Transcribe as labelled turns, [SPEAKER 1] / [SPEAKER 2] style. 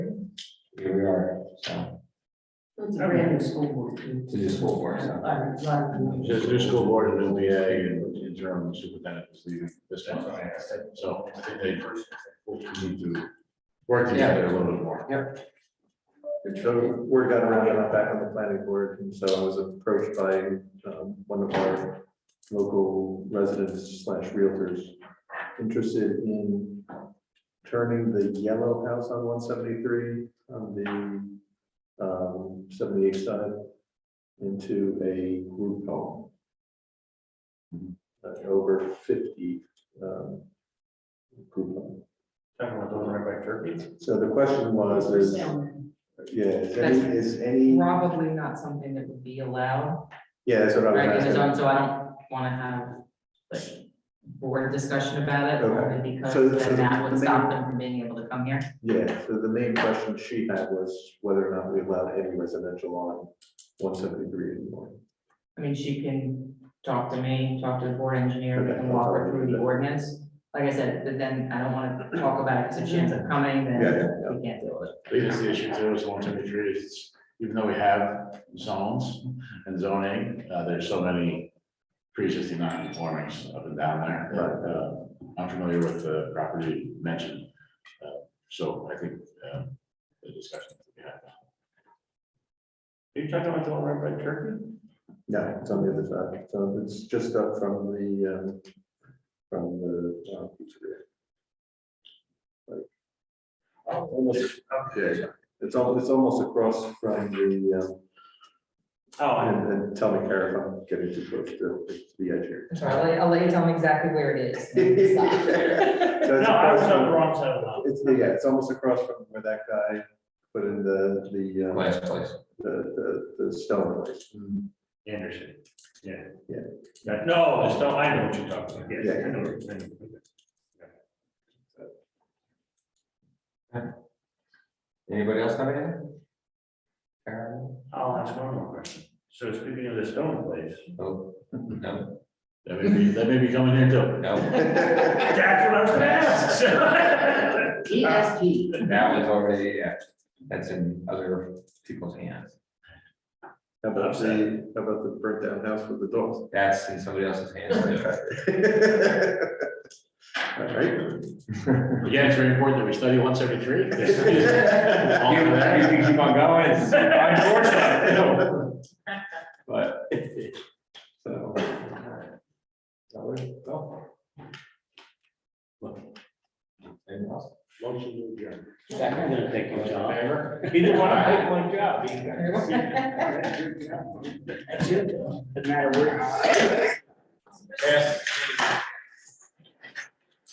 [SPEAKER 1] here we are, so,
[SPEAKER 2] It's a brand new school board. too.
[SPEAKER 1] to the school board, so.
[SPEAKER 2] Uh, a lot of-
[SPEAKER 3] There's new school board and NBA and interim superintendent is leaving this time. So I think they will need to work together a little bit more.
[SPEAKER 4] So word got around that I'm back on the planning board, and so I was approached by um, one of our local residents slash realtors interested in turning the yellow house on one seventy-three on the um, seventy-eight side into a group home. Uh, Over fifty um, group home. So the question was, is, yeah, is any, is any?
[SPEAKER 5] Probably not something that would be allowed,
[SPEAKER 4] Yeah, that's what I
[SPEAKER 5] right,
[SPEAKER 4] was
[SPEAKER 5] in the zone,
[SPEAKER 4] asking.
[SPEAKER 5] so I don't wanna have like board discussion about it, only
[SPEAKER 4] So-
[SPEAKER 5] because
[SPEAKER 4] so
[SPEAKER 5] then that
[SPEAKER 4] the
[SPEAKER 5] would stop
[SPEAKER 4] main-
[SPEAKER 5] them from being able to come here.
[SPEAKER 4] Yeah, so the main question she had was whether or not we allowed any residential on one seventy-three anymore.
[SPEAKER 5] I mean, she can talk to me, talk to the board engineer, we
[SPEAKER 4] Okay,
[SPEAKER 5] can
[SPEAKER 4] I'll
[SPEAKER 5] walk
[SPEAKER 4] talk
[SPEAKER 5] her
[SPEAKER 4] to
[SPEAKER 5] through
[SPEAKER 4] you.
[SPEAKER 5] the ordinance. Like I said, but then I don't wanna talk about it, since Jim's coming, then
[SPEAKER 4] Yeah, yeah, yeah.
[SPEAKER 5] we can't deal with it.
[SPEAKER 3] I think that's the issue too, is long-term retreats, even though we have zones and zoning, uh, there's so many pre-existing non-conformings up and down there. that, uh, I'm familiar with the property mentioned, uh, so I think, uh, the discussion. Are you talking about the one right by Turkey?
[SPEAKER 4] No, it's on the other side. So it's just up from the, um, from the. uh, pizzeria. Like, Almost up there. It's al- it's almost across from the, um,
[SPEAKER 6] Oh,
[SPEAKER 4] and, and tell me, Kara, if I'm getting too close to to the edge here.
[SPEAKER 5] I'm sorry, I'll let, I'll let you tell me exactly where it is.
[SPEAKER 4] So
[SPEAKER 6] no,
[SPEAKER 4] it's
[SPEAKER 6] I was
[SPEAKER 4] across
[SPEAKER 6] on
[SPEAKER 4] from-
[SPEAKER 6] the wrong side of the line.
[SPEAKER 4] It's, yeah, it's almost across from where that guy put in the, the, uh,
[SPEAKER 1] Last place.
[SPEAKER 4] the, the, the stone place.
[SPEAKER 6] Mm. Anderson, yeah.
[SPEAKER 4] Yeah.
[SPEAKER 6] Right, No, it's not, I know what you're talking about, yes,
[SPEAKER 4] Yeah.
[SPEAKER 6] I know what you're talking about.
[SPEAKER 1] Anybody else have anything? Karen?
[SPEAKER 6] I'll ask one more question. So speaking of the stone place,
[SPEAKER 1] Oh, no,
[SPEAKER 3] That may be, that may be coming here too.
[SPEAKER 1] no,
[SPEAKER 6] that's what I was gonna ask.
[SPEAKER 5] ESP.
[SPEAKER 1] that was already, yeah, that's in other people's hands.
[SPEAKER 4] How about the, how about the burnt down house with the dogs?
[SPEAKER 1] That's in somebody else's hands. too.
[SPEAKER 4] All right.
[SPEAKER 3] Again, it's very important that we study one seventy-three.
[SPEAKER 1] You you keep on going, it's unfortunate.
[SPEAKER 4] But. So. That was, oh,
[SPEAKER 1] Anything else?
[SPEAKER 6] Motion to adjourn.
[SPEAKER 5] Second.
[SPEAKER 6] Thank you, John. Either one, I take one job. either. Doesn't matter where. Yes.